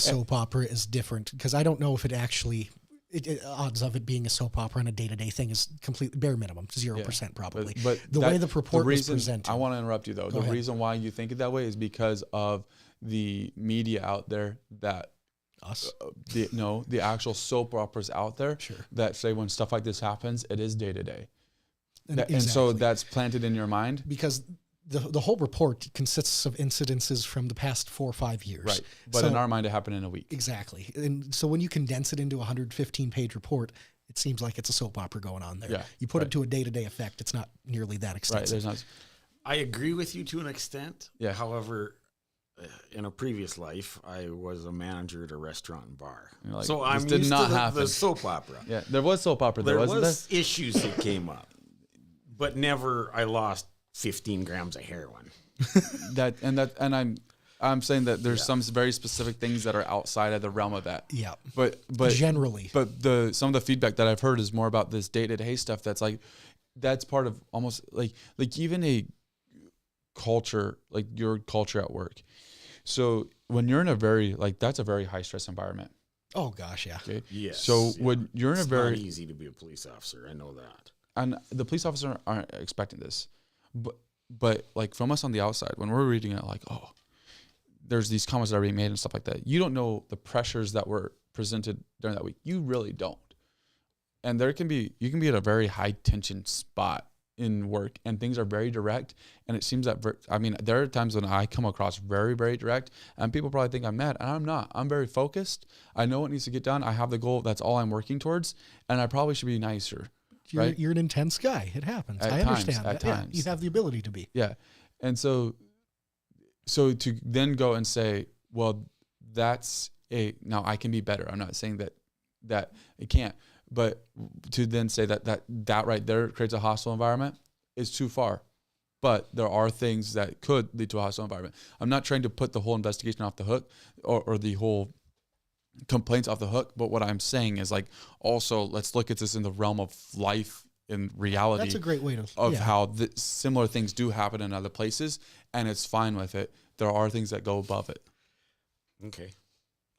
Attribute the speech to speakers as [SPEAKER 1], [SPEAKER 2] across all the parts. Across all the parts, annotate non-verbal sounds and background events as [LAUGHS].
[SPEAKER 1] soap opera is different because I don't know if it actually it, it- odds of it being a soap opera and a day to day thing is completely bare minimum zero percent probably.
[SPEAKER 2] But
[SPEAKER 1] the
[SPEAKER 2] that-
[SPEAKER 1] way the purport
[SPEAKER 2] reason,
[SPEAKER 1] was presented,
[SPEAKER 2] I want to interrupt you though. the
[SPEAKER 1] ahead.
[SPEAKER 2] reason why you think it that way is because of the media out there that
[SPEAKER 1] us
[SPEAKER 2] uh, the no the actual soap operas out there
[SPEAKER 1] Sure.
[SPEAKER 2] that say when stuff like this happens, it is day to day,
[SPEAKER 1] and,
[SPEAKER 2] and so
[SPEAKER 1] exactly.
[SPEAKER 2] that's planted in your mind.
[SPEAKER 1] because the the whole report consists of incidences from the past four or five years.
[SPEAKER 2] Right. But
[SPEAKER 1] So-
[SPEAKER 2] in our mind, it happened in a week.
[SPEAKER 1] Exactly. And so when you condense it into a 115 page report, it seems like it's a soap opera going on there.
[SPEAKER 2] Yeah,
[SPEAKER 1] you put
[SPEAKER 2] right.
[SPEAKER 1] it to a day to day effect, it's not nearly that
[SPEAKER 2] Right.
[SPEAKER 1] extensive.
[SPEAKER 2] There's not.
[SPEAKER 3] I agree with you to an extent.
[SPEAKER 2] Yeah.
[SPEAKER 3] However, uh, in a previous life, I was a manager at a restaurant and bar,
[SPEAKER 2] You're like,
[SPEAKER 3] so
[SPEAKER 2] "This
[SPEAKER 3] I'm
[SPEAKER 2] did
[SPEAKER 3] used
[SPEAKER 2] not
[SPEAKER 3] to the,
[SPEAKER 2] happen."
[SPEAKER 3] the soap opera.
[SPEAKER 2] Yeah. There was soap opera. There,
[SPEAKER 3] there
[SPEAKER 2] wasn't
[SPEAKER 3] was issues that came up, but never I lost 15 grams of heroin.
[SPEAKER 2] there? that and that and I'm I'm saying that there's some very specific things that are outside of the realm of that.
[SPEAKER 1] yeah.
[SPEAKER 2] But but
[SPEAKER 1] Generally.
[SPEAKER 2] But the some of the feedback that I've heard is more about this day to day stuff. That's like that's part of almost like like even a culture like your culture at work. So when you're in a very like that's a very high stress environment.
[SPEAKER 1] oh, gosh. Yeah.
[SPEAKER 2] Okay.
[SPEAKER 3] Yes,
[SPEAKER 2] So
[SPEAKER 3] yeah.
[SPEAKER 2] when you're in a
[SPEAKER 3] It's
[SPEAKER 2] very
[SPEAKER 3] not easy to be a police officer. I know that.
[SPEAKER 2] and the police officers aren't expecting this, but but like from us on the outside, when we're reading it, like oh, there's these comments that are being made and stuff like that. You don't know the pressures that were presented during that week. You really don't. And there can be you can be at a very high tension spot in work, and things are very direct. And it seems that ver- I mean there are times when I come across very very direct, and people probably think I'm mad, and I'm not. I'm very focused. I know what needs to get done. I have the goal. That's all I'm working towards, and I probably should be nicer.
[SPEAKER 1] You're,
[SPEAKER 2] Right.
[SPEAKER 1] you're an intense guy. It happens.
[SPEAKER 2] At
[SPEAKER 1] I
[SPEAKER 2] times,
[SPEAKER 1] understand.
[SPEAKER 2] at
[SPEAKER 1] that. Yeah,
[SPEAKER 2] times.
[SPEAKER 1] you have the ability to be.
[SPEAKER 2] Yeah. And so so to then go and say, well, that's a now I can be better. I'm not saying that that it can't, but to then say that that that right there creates a hostile environment is too far. But there are things that could lead to a hostile environment. I'm not trying to put the whole investigation off the hook or, or the whole complaints off the hook, but what I'm saying is like also let's look at this in the realm of life in reality
[SPEAKER 1] That's a great way to.
[SPEAKER 2] of
[SPEAKER 1] yeah.
[SPEAKER 2] how th- similar things do happen in other places, and it's fine with it. There are things that go above it.
[SPEAKER 3] Okay,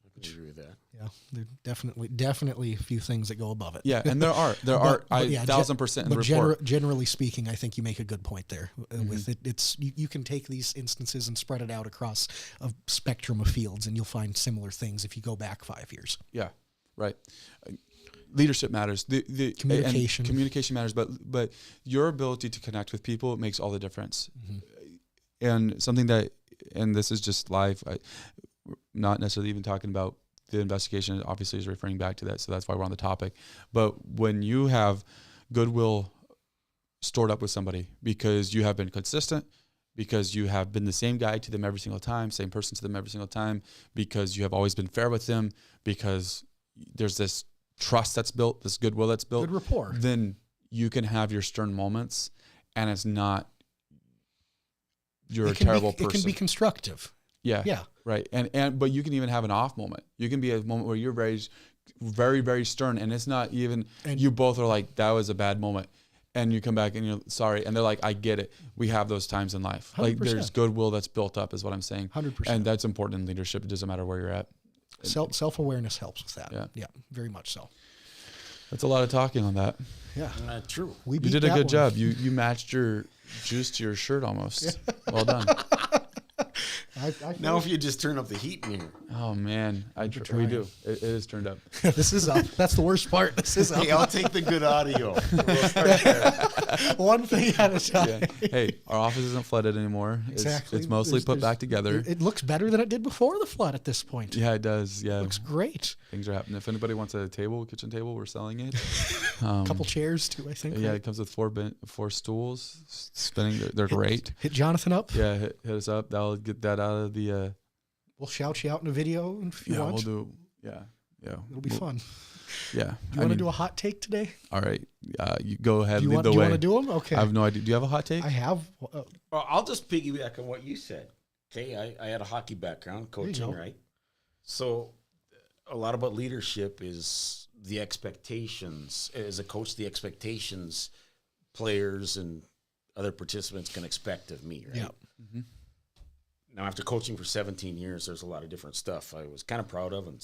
[SPEAKER 3] I can agree with that.
[SPEAKER 1] yeah. There are definitely, definitely a few things that go above it.
[SPEAKER 2] Yeah, and there are
[SPEAKER 1] [LAUGHS]
[SPEAKER 2] there
[SPEAKER 1] But-
[SPEAKER 2] are
[SPEAKER 1] but
[SPEAKER 2] I,
[SPEAKER 1] yeah, ge-
[SPEAKER 2] thousand percent in the
[SPEAKER 1] but
[SPEAKER 2] report. Mm-hmm.
[SPEAKER 1] gener- generally speaking, I think you make a good point there. uh, With it, it's you, you can take these instances and spread it out across a spectrum of fields, and you'll find similar things if you go back five years.
[SPEAKER 2] yeah, right. Uh, Leadership matters. The, the and
[SPEAKER 1] Communication.
[SPEAKER 2] communication matters, but but your ability to connect with people makes all the difference.
[SPEAKER 1] Mm-hmm.
[SPEAKER 2] And something that and this is just live. I, we're not necessarily even talking about the investigation. Obviously, is referring back to that, so that's why we're on the topic. But when you have goodwill stored up with somebody because you have been consistent, because you have been the same guy to them every single time, same person to them every single time, because you have always been fair with them, because there's this trust that's built, this goodwill that's built,
[SPEAKER 1] Good rapport.
[SPEAKER 2] then you can have your stern moments and it's not you're a
[SPEAKER 1] it can
[SPEAKER 2] terrible
[SPEAKER 1] be,
[SPEAKER 2] person.
[SPEAKER 1] It can be constructive.
[SPEAKER 2] yeah.
[SPEAKER 1] Yeah.
[SPEAKER 2] Right. And and but you can even have an off moment. You can be at a moment where you're very very very stern and it's not even
[SPEAKER 1] And-
[SPEAKER 2] you both are like that was a bad moment and you come back and you're sorry and they're like I get it. We have those times in life. Like
[SPEAKER 1] 100%.
[SPEAKER 2] there's goodwill that's built up is what I'm saying.
[SPEAKER 1] 100%.
[SPEAKER 2] And that's important in leadership. It doesn't matter where you're at.
[SPEAKER 1] Self self awareness helps with that.
[SPEAKER 2] Yeah.
[SPEAKER 1] very much so.
[SPEAKER 2] That's a lot of talking on that.
[SPEAKER 1] Yeah,
[SPEAKER 3] Uh, true.
[SPEAKER 1] we
[SPEAKER 2] You
[SPEAKER 1] beat
[SPEAKER 2] did a
[SPEAKER 1] that
[SPEAKER 2] good
[SPEAKER 1] one.
[SPEAKER 2] job. You you matched your juice to your shirt almost. well done.
[SPEAKER 1] I, I
[SPEAKER 3] Now, if you just turn up the heat in here,
[SPEAKER 2] Oh man, I tr- we do. It, it is
[SPEAKER 1] [LAUGHS]
[SPEAKER 2] turned up.
[SPEAKER 1] this is up. That's the worst part. This is up.
[SPEAKER 3] [LAUGHS] hey, I'll take [LAUGHS] the good audio.
[SPEAKER 1] one thing at a time.
[SPEAKER 2] Yeah. hey, our office isn't flooded anymore. It's,
[SPEAKER 1] Exactly.
[SPEAKER 2] It's mostly
[SPEAKER 1] There's-
[SPEAKER 2] put
[SPEAKER 1] there's-
[SPEAKER 2] back together.
[SPEAKER 1] It looks better than it did before the flood at this point.
[SPEAKER 2] yeah, it does. Yeah,
[SPEAKER 1] Looks great.
[SPEAKER 2] things are happening. If anybody wants a table, kitchen table, we're
[SPEAKER 1] [LAUGHS]
[SPEAKER 2] selling it. Um,
[SPEAKER 1] A couple chairs too, I think.
[SPEAKER 2] Mm. yeah,
[SPEAKER 1] right?
[SPEAKER 2] it comes with four ben- four stools. s- Spinning, they're, they're great.
[SPEAKER 1] Hit Jonathan up.
[SPEAKER 2] Yeah, hit, hit us up. That'll get that out of the. Uh,
[SPEAKER 1] We'll shout you out in a video if you
[SPEAKER 2] yeah,
[SPEAKER 1] want.
[SPEAKER 2] we'll do. Yeah, yeah.
[SPEAKER 1] It'll be
[SPEAKER 2] we'll-
[SPEAKER 1] fun.
[SPEAKER 2] Yeah.
[SPEAKER 1] Do you want to do a hot take today?
[SPEAKER 2] All right. Uh, you go ahead.
[SPEAKER 1] Do you
[SPEAKER 2] lead
[SPEAKER 1] want?
[SPEAKER 2] the
[SPEAKER 1] Do you
[SPEAKER 2] way.
[SPEAKER 1] want to do them? Okay.
[SPEAKER 2] I have no idea. Do you have a hot take?
[SPEAKER 1] I have. Uh,
[SPEAKER 3] Well, I'll just piggyback on what you said. Okay, I, I had a hockey background,
[SPEAKER 1] you
[SPEAKER 3] coaching,
[SPEAKER 1] go.
[SPEAKER 3] right? So, a lot about leadership is the expectations. As a coach, the expectations players and other participants can expect of me, right?
[SPEAKER 1] yeah.
[SPEAKER 3] now after coaching for 17 years, there's a lot of different stuff I was kind of proud of and